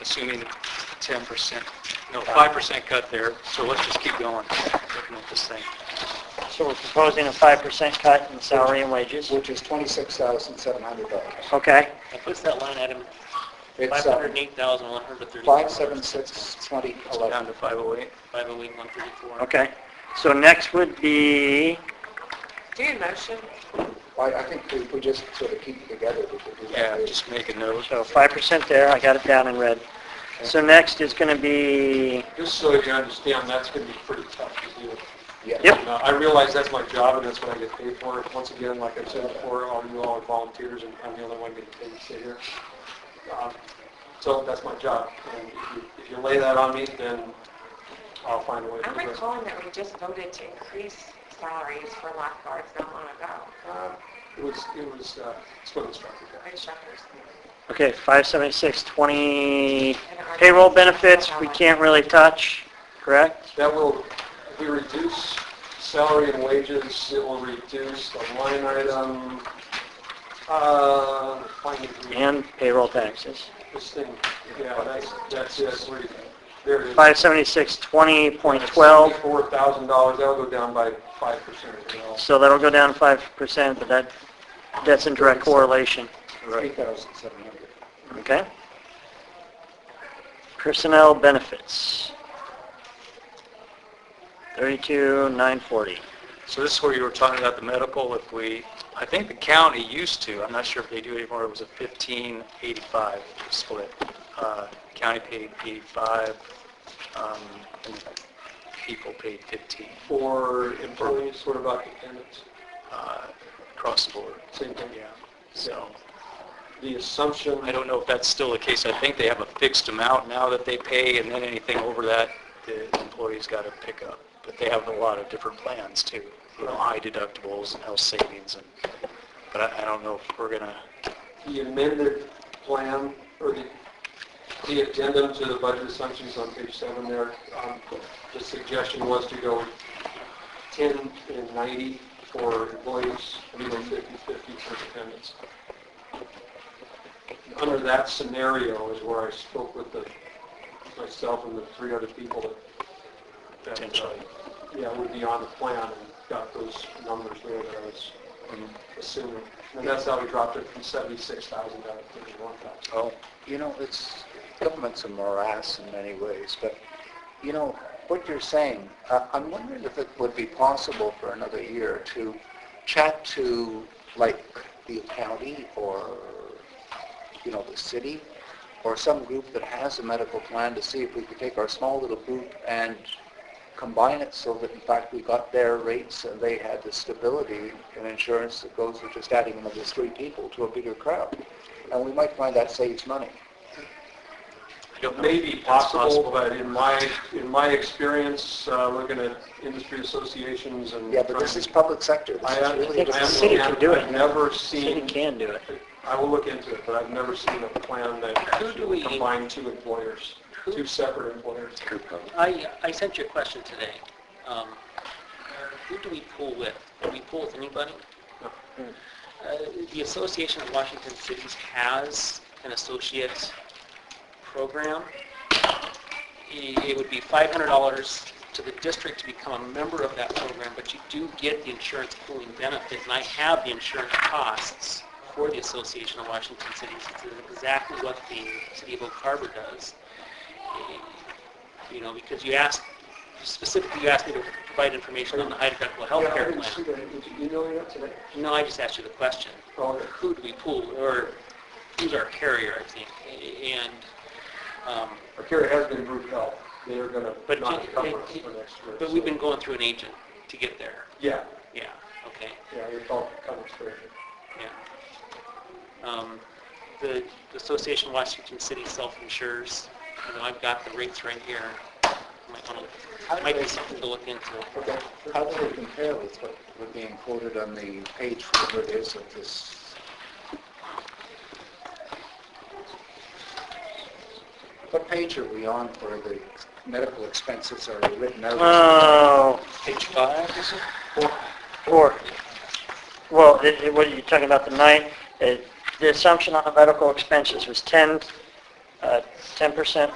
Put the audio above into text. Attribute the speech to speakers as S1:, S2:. S1: assuming 10%, no, 5% cut there, so let's just keep going, looking at this thing.
S2: So we're proposing a 5% cut in salary and wages.
S3: which is $26,700.
S2: Okay,
S4: Now, what's that line item?
S3: It's uh,
S4: 508,136.
S3: 5762011.
S1: Down to 508.
S4: 508,134.
S2: okay. So next would be,
S5: Do you motion?
S3: I I think if we just sort of keep it together, we could do
S1: Yeah,
S3: that.
S1: just make a note.
S2: so 5% there, I got it down in red. So next is going to be,
S6: Just so you understand, that's going to be pretty tough to do.
S3: Yeah.
S2: Yep.
S6: And, uh, I realize that's my job and that's what I get paid for. Once again, like I've said before, all you all are volunteers and I'm the only one getting paid to sit here. Um, So that's my job. And if you- if you lay that on me, then I'll find a way to
S5: I'm
S6: address it.
S5: recalling that we just voted to increase salaries for lifeguards not long ago,
S6: Uh, It was, it was, uh, swim instructor.
S5: for instructors.
S2: okay, 576, 20 payroll benefits, we can't really touch, correct?
S6: That will, if we reduce salary and wages, it will reduce the line item, uh, finally,
S2: And payroll taxes.
S6: this thing, yeah, that's, that's it, we, there it is.
S2: 576, 20.12,
S6: Four thousand dollars, that'll go down by five percent, you know.
S2: so that'll go down 5%, but that, that's in direct correlation,
S3: 3,700.
S2: okay? Personnel benefits. 32,940.
S1: So this is where you were talking about the medical, if we, I think the county used to, I'm not sure if they do anymore, it was a 1585 split. Uh, County paid 85, um, and people paid 15,
S6: For employees, sort of occupants,
S1: uh, across the board.
S6: same thing,
S1: Yeah, so
S6: the assumption.
S1: I don't know if that's still the case. I think they have a fixed amount now that they pay, and then anything over that, the employee's got to pick up. But they have a lot of different plans too, you know, high deductibles and health savings and, but I, I don't know if we're gonna,
S6: the amended plan, or the, the addendum to the budget assumptions on page seven there, um, the suggestion was to go 10 and 90 for employees, and then 50-50 for dependents. Under that scenario is where I spoke with the, myself and the three other people that, that, uh,
S1: Potentially.
S6: yeah, would be on the plan, and got those numbers there that I was assuming. And that's how we dropped it from 76,000 down to 51,000.
S1: oh,
S3: You know, it's, government's a morass in many ways, but, you know, what you're saying, uh, I'm wondering if it would be possible for another year to chat to, like, the county or, you know, the city, or some group that has a medical plan to see if we could take our small little group and combine it so that, in fact, we got their rates and they had the stability and insurance that goes with just adding another three people to a bigger crowd. And we might find that saves money.
S1: I don't
S6: It
S1: know.
S6: may be
S1: That's
S6: possible, but in my, in my experience, uh, looking at industry associations and...
S3: Yeah, but this is public sector. This
S6: I
S3: is
S6: am-
S3: really...
S2: think
S6: I
S2: the
S6: am-
S2: city can do it.
S6: I've never
S2: City
S6: seen,
S2: can do it.
S6: I will look into it, but I've never seen a plan that
S4: Who do we-
S6: actually combined two employers, two separate employers.
S4: I, I sent you a question today. Um, Who do we pool with? Do we pool with anybody? Uh, The Association of Washington Cities has an associate program. I- It would be $500 to the district to become a member of that program, but you do get the insurance pooling benefit, and I have the insurance costs for the Association of Washington Cities. It's exactly what the City of Oak Harbor does you know, because you asked, specifically you asked me to provide information on the high deductible health
S6: Yeah, I
S4: care
S6: didn't see
S4: plan.
S6: that. Did you email me that today?
S4: No, I just asked you the question.
S6: Oh, okay.
S4: Who do we pool, or who's our carrier, I think? And, um,
S6: Our carrier has been group health. They are going to
S4: but,
S6: not cover us
S4: it-
S6: for next year.
S4: it- but we've
S6: so-
S4: been going through an agent to get there.
S6: Yeah,
S4: Yeah, okay,
S6: yeah, you're talking, coming straight.
S4: yeah. Um, The the Association of Washington City self-insures, you know, I've got the rates right here. Might wanna- Might be something to look into.
S6: Okay.
S3: How do they compare with what was being quoted on the page, whatever it is, of this? What page are we on where the medical expenses are written out?
S2: Oh,
S1: Page five, is it?
S2: Or, well, it- it- what are you talking about, the nine, uh, the assumption on the medical expenses was 10, uh, 10%